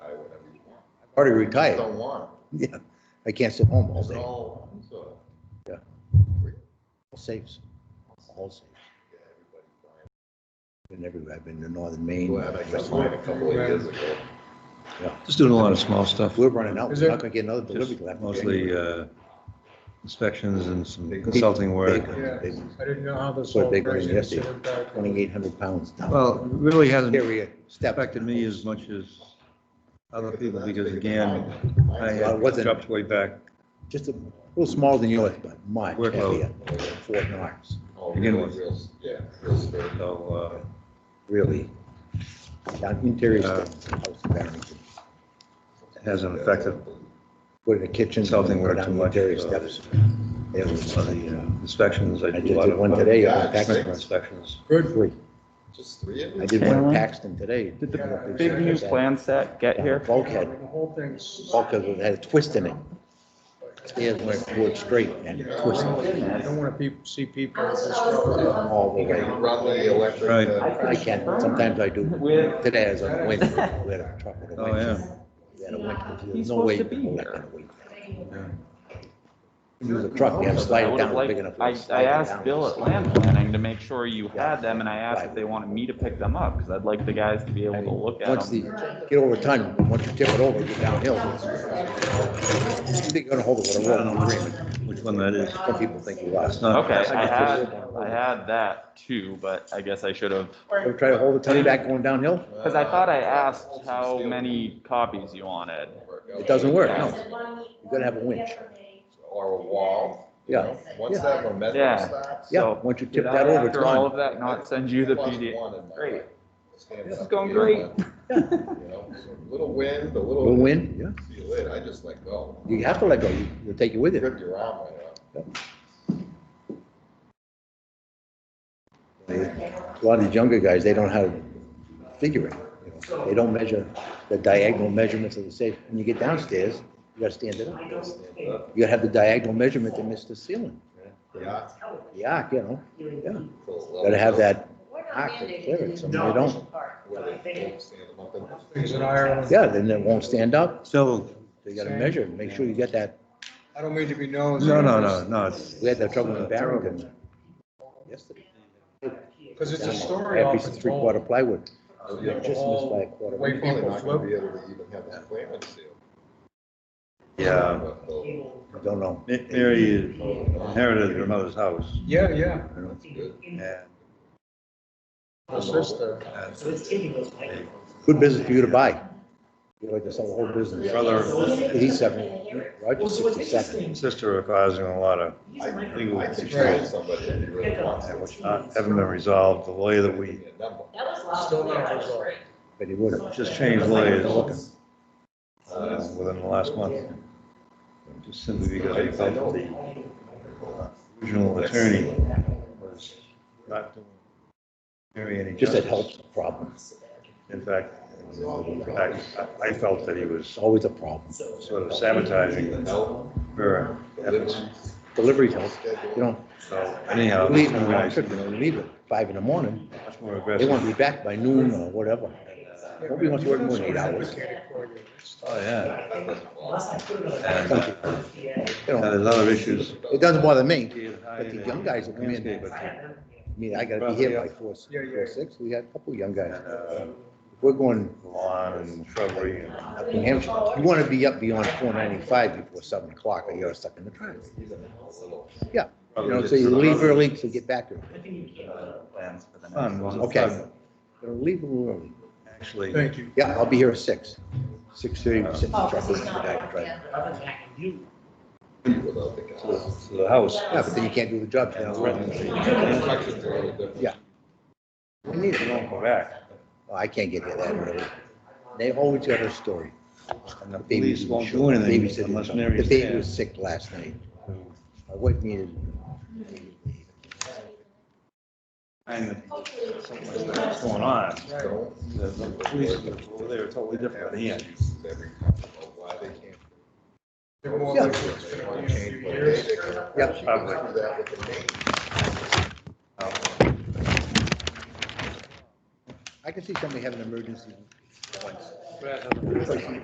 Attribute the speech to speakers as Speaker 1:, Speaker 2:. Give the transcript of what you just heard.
Speaker 1: already retired.
Speaker 2: Don't want
Speaker 1: Yeah, I can't sit home
Speaker 2: it.
Speaker 1: all
Speaker 2: It's
Speaker 1: day.
Speaker 2: all, so,
Speaker 1: All Saves, all saves.
Speaker 2: yeah, everybody.
Speaker 1: Been everywhere. I've been to northern Maine.
Speaker 2: Glad I got mine a couple of years ago.
Speaker 3: Just doing a lot of small stuff,
Speaker 1: We're running out.
Speaker 2: Is
Speaker 1: We're
Speaker 2: there-
Speaker 1: not gonna get another delivery. till after
Speaker 3: mostly
Speaker 1: January.
Speaker 3: uh, inspections and some consulting work.
Speaker 1: They- they-
Speaker 4: I didn't know how this
Speaker 1: What
Speaker 4: whole
Speaker 1: they bring
Speaker 4: crazy
Speaker 1: yesterday.
Speaker 4: considered back.
Speaker 1: Twenty-eight hundred pounds down.
Speaker 3: Well, it really hasn't
Speaker 1: Area step.
Speaker 3: affected me as much as other people, because again, I
Speaker 1: Well, it
Speaker 3: had
Speaker 1: wasn't-
Speaker 3: dropped way back.
Speaker 1: Just a little smaller than yours, but much heavier.
Speaker 3: Workload.
Speaker 1: Fort Knox,
Speaker 2: Oh,
Speaker 3: begin
Speaker 2: really,
Speaker 3: with.
Speaker 2: real s- Yeah, real estate.
Speaker 3: So,
Speaker 1: really. Down interior
Speaker 3: Uh,
Speaker 1: stuff. house in Barrington.
Speaker 3: uh, it hasn't affected
Speaker 1: Go to the kitchen.
Speaker 3: Consulting
Speaker 1: go
Speaker 3: work
Speaker 1: down
Speaker 3: too
Speaker 1: the
Speaker 3: much,
Speaker 1: Interior
Speaker 3: so-
Speaker 1: steps. It was the, uh,
Speaker 3: inspections.
Speaker 1: I
Speaker 3: do a
Speaker 1: just
Speaker 3: lot
Speaker 1: did
Speaker 3: of,
Speaker 1: one
Speaker 3: uh,
Speaker 1: today. on
Speaker 2: Yeah,
Speaker 1: Paxton.
Speaker 2: six.
Speaker 3: Inspections.
Speaker 4: Good.
Speaker 1: Three.
Speaker 2: Just three of
Speaker 1: I
Speaker 2: them?
Speaker 1: did one in
Speaker 5: Alan?
Speaker 1: Paxton today.
Speaker 5: Did the
Speaker 4: Yeah.
Speaker 5: big new plan set get here?
Speaker 1: Bulkhead.
Speaker 4: The whole thing's.
Speaker 1: bulkhead that had a twist in it. Stairs went forward straight and
Speaker 4: You
Speaker 1: it
Speaker 4: know,
Speaker 1: twisted
Speaker 4: I don't- I don't want to pe see people just.
Speaker 1: all the way.
Speaker 2: Run the electric.
Speaker 3: Right.
Speaker 2: uh,
Speaker 1: I can't, sometimes I do.
Speaker 5: Where-
Speaker 1: Today I was on the wind, we had a truck with a
Speaker 3: Oh, yeah.
Speaker 1: wind. We had a wind, there's
Speaker 5: He's
Speaker 1: no way.
Speaker 5: supposed to
Speaker 1: you can
Speaker 5: be
Speaker 1: let
Speaker 5: here.
Speaker 1: that wind.
Speaker 3: Yeah.
Speaker 1: Use a truck, you have to slide
Speaker 5: I
Speaker 1: it
Speaker 5: would
Speaker 1: down
Speaker 5: have
Speaker 1: big
Speaker 5: liked,
Speaker 1: enough. to
Speaker 5: I,
Speaker 1: slide
Speaker 5: I
Speaker 1: it
Speaker 5: asked
Speaker 1: down.
Speaker 5: Bill at land planning to make sure you had them, and I asked if they wanted me to pick them up, because I'd like the guys to be
Speaker 1: I
Speaker 5: able to
Speaker 1: mean,
Speaker 5: look
Speaker 1: Once
Speaker 5: at
Speaker 1: the,
Speaker 5: them.
Speaker 1: get over time, once you tip it over, get downhill. They're gonna hold it with a roll on agreement.
Speaker 3: Which one that is?
Speaker 1: Some people think you
Speaker 3: It's
Speaker 1: lost.
Speaker 3: not.
Speaker 5: Okay, I had, I had that too, but I guess I should have,
Speaker 1: Ever try to hold the tongue back going downhill?
Speaker 5: because
Speaker 2: Uh,
Speaker 5: I thought I asked how many copies you wanted.
Speaker 1: It doesn't work, no.
Speaker 6: You
Speaker 1: gotta have a winch.
Speaker 2: Or a wall. you
Speaker 1: Yeah,
Speaker 2: know? Once
Speaker 6: Yeah.
Speaker 2: that momentum
Speaker 5: Yeah.
Speaker 2: starts.
Speaker 1: yeah,
Speaker 5: So,
Speaker 1: once you tip
Speaker 5: Did
Speaker 1: that
Speaker 5: I,
Speaker 1: over, it's
Speaker 5: after all
Speaker 1: gone.
Speaker 5: of that, not send you the
Speaker 2: Plus
Speaker 5: PDF?
Speaker 2: one in my
Speaker 5: Great.
Speaker 2: life. Stand
Speaker 5: This is
Speaker 2: up
Speaker 5: going
Speaker 2: here,
Speaker 5: great.
Speaker 2: you know, a Little wind, a
Speaker 1: Little
Speaker 2: little.
Speaker 1: wind, yeah.
Speaker 2: See you later. I just let go.
Speaker 1: You have to let go, You- you'll take it with you.
Speaker 2: Ripped your arm right out.
Speaker 1: A lot of these younger guys, they don't know how to figure it. you know. They don't measure the diagonal measurements of the safe. When you get downstairs, you gotta stand it up. You gotta have the diagonal measurement to miss the ceiling.
Speaker 2: Yeah.
Speaker 1: The arc, you know, yeah.
Speaker 2: Gotta
Speaker 1: Gotta have that
Speaker 6: We're not
Speaker 1: arc to
Speaker 6: mandated
Speaker 1: clear
Speaker 6: to
Speaker 1: it,
Speaker 6: use
Speaker 1: some they don't.
Speaker 6: park,
Speaker 2: Where
Speaker 6: but I
Speaker 2: they
Speaker 6: think
Speaker 2: won't stand them up and-
Speaker 4: Things in Ireland.
Speaker 1: Yeah, then it won't stand up.
Speaker 3: Still,
Speaker 1: So you gotta measure it, make sure you get that.
Speaker 4: I don't mean to be known.
Speaker 3: no, no, no, no, it's.
Speaker 1: We had that trouble in Barrington. Yesterday.
Speaker 4: Because it's
Speaker 1: Down
Speaker 4: a
Speaker 1: there.
Speaker 4: story
Speaker 1: Every
Speaker 4: off its
Speaker 1: three quarter
Speaker 4: own.
Speaker 1: plywood.
Speaker 2: Oh,
Speaker 1: Just
Speaker 2: yeah.
Speaker 1: missed by a quarter.
Speaker 4: Way
Speaker 2: You're probably
Speaker 4: people
Speaker 2: not gonna
Speaker 4: flip.
Speaker 2: be able to even have that climate seal.
Speaker 3: Yeah,
Speaker 2: But they'll-
Speaker 1: I don't know.
Speaker 3: Ma- Mary inherited her mother's house,
Speaker 4: Yeah, yeah.
Speaker 2: That's good.
Speaker 3: and
Speaker 4: My sister.
Speaker 3: uh,
Speaker 1: Good business for you to buy. You'd like to sell the whole business.
Speaker 3: Brother.
Speaker 1: Eighty-seven, Roger's sixty-seven.
Speaker 3: sister are causing a lot of
Speaker 2: I
Speaker 3: legal
Speaker 2: I can
Speaker 3: issues
Speaker 2: train somebody if you really want to.
Speaker 3: which not- haven't been resolved, the lawyer that we
Speaker 2: Give me a number.
Speaker 4: Still not resolved.
Speaker 1: But he would have.
Speaker 3: just changed lawyers uh, within the last month. Just simply because we felt that the original attorney was not doing Mary any
Speaker 1: Just that
Speaker 3: justice.
Speaker 1: helps the problem.
Speaker 3: In fact, in fact, I- I felt that he was
Speaker 1: It's always a problem.
Speaker 3: sort of sabotaging
Speaker 2: No,
Speaker 3: her efforts.
Speaker 2: delivery
Speaker 1: Delivery helps,
Speaker 2: schedule.
Speaker 1: you know,
Speaker 3: So anyhow,
Speaker 1: leave them when
Speaker 3: I
Speaker 1: I should, you know, leave at five in the morning.
Speaker 3: much more
Speaker 1: They
Speaker 3: aggressive.
Speaker 1: want to be back by noon or whatever. Nobody wants to work more than eight hours. You
Speaker 3: Oh, yeah. And uh,
Speaker 1: know,
Speaker 3: now there's other issues.
Speaker 1: it doesn't bother me. But the young guys will come in. I mean, I gotta be here by four,
Speaker 4: Yeah, yeah.
Speaker 1: four, six. We had a couple of young guys.
Speaker 3: And, uh,
Speaker 1: We're going
Speaker 3: Lawn and shrubbery and
Speaker 1: up in Hampshire. You wanna be up beyond four ninety-five before seven o'clock or you're stuck in the traffic. Yeah, you know, so you leave early to get back early.
Speaker 5: Plans for the next
Speaker 3: fun.
Speaker 5: one.
Speaker 1: Okay. Gonna leave a little early.
Speaker 3: Actually,
Speaker 4: Thank you.
Speaker 1: Yeah, I'll be here at six. Six thirty,
Speaker 3: Oh.
Speaker 1: we're sitting in the truck waiting for the guy to drive. Yeah,
Speaker 2: Without the
Speaker 3: to
Speaker 2: guys.
Speaker 3: to the house.
Speaker 1: but then you can't do the job.
Speaker 3: And threatened,
Speaker 2: Instructions are a little different.
Speaker 3: we need to not go back.
Speaker 1: Oh, I can't get here that early. They always got a story.
Speaker 3: And the
Speaker 1: The baby
Speaker 3: police won't do
Speaker 1: showed up. Baby
Speaker 3: anything
Speaker 1: said-
Speaker 3: unless
Speaker 1: The
Speaker 3: Mary's
Speaker 1: baby
Speaker 3: there.
Speaker 1: was sick last night. My wife needed,
Speaker 3: And something like that's going on.
Speaker 2: Don't
Speaker 3: The the police over there are totally different than here.
Speaker 2: use every company or why they can't.
Speaker 4: They're more
Speaker 1: Yeah.
Speaker 4: like this in a few years.
Speaker 1: Yeah.
Speaker 2: She can do that with the name.
Speaker 1: I can see somebody having an emergency once.